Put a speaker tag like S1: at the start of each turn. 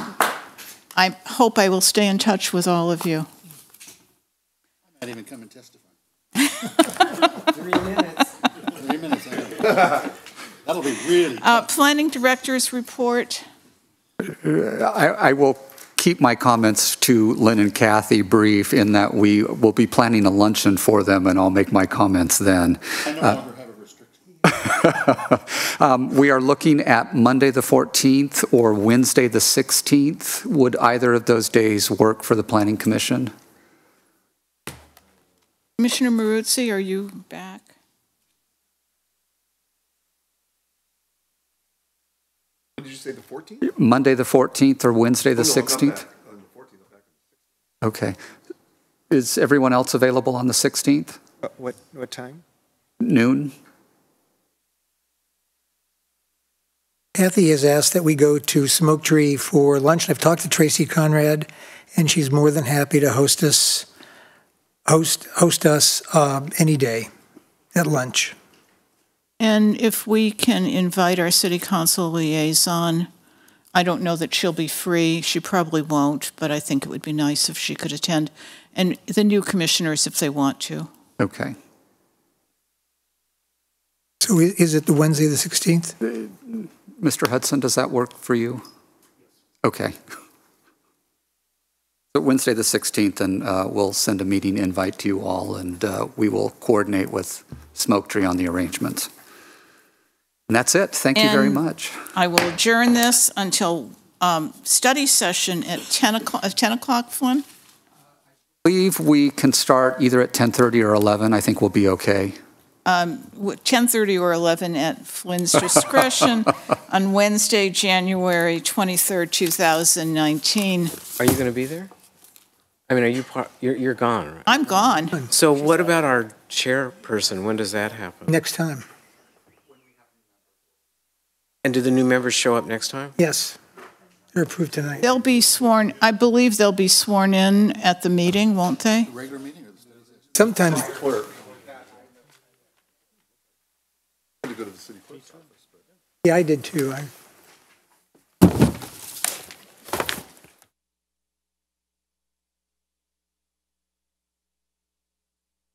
S1: I hope I will stay in touch with all of you.
S2: Not even come and testify.
S3: Three minutes.
S2: Three minutes. I know. That'll be really.
S1: Uh, Planning Director's report.
S4: I I will keep my comments to Lynn and Kathy brief in that we will be planning a luncheon for them, and I'll make my comments then. Uh,
S2: I no longer have a restriction.
S4: Um, We are looking at Monday, the 14th, or Wednesday, the 16th. Would either of those days work for the Planning Commission?
S1: Commissioner Maruzzi, are you back?
S5: Did you say the 14th?
S4: Monday, the 14th, or Wednesday, the
S5: Oh, no, I'm not
S4: 16th?
S5: back On the 14th, I'm back.
S4: Okay. Is everyone else available on the 16th?
S3: Uh, What, what time?
S4: Noon?
S6: Kathy has asked that we go to Smoke Tree for lunch. I've talked to Tracy Conrad, and she's more than happy to host us, host, host us uh, any day at lunch.
S1: And if we can invite our city council liaison, I don't know that she'll be free. She probably won't, but I think it would be nice if she could attend. And the new commissioners, if they want to.
S4: Okay.
S6: So i- is it the Wednesday, the 16th?
S4: Mr. Hudson, does that work for you? Okay. So Wednesday, the 16th, and uh, we'll send a meeting invite to you all, and uh, we will coordinate with Smoke Tree on the arrangements. And that's it. Thank you very
S1: And-
S4: much.
S1: I will adjourn this until um, study session at 10 o'clock, at 10 o'clock, Flynn?
S4: I believe we can start either at 10:30 or 11. I think we'll be okay.
S1: w- 10:30 or 11 at Flynn's discretion on Wednesday, January 23rd, 2019.
S3: Are you going to be there? I mean, are you, par- you're, you're gone, right?
S1: I'm gone.
S3: So what about our chairperson? When does that happen?
S6: Next time?
S3: And do the new members show up next time?
S6: Yes. They're approved tonight.
S1: They'll be sworn, I believe they'll be sworn in at the meeting, won't they?
S2: Regular meeting or the study session?
S6: Sometimes,
S5: Clerk. I had to go to the city clerk's office.
S6: yeah, I did too. I-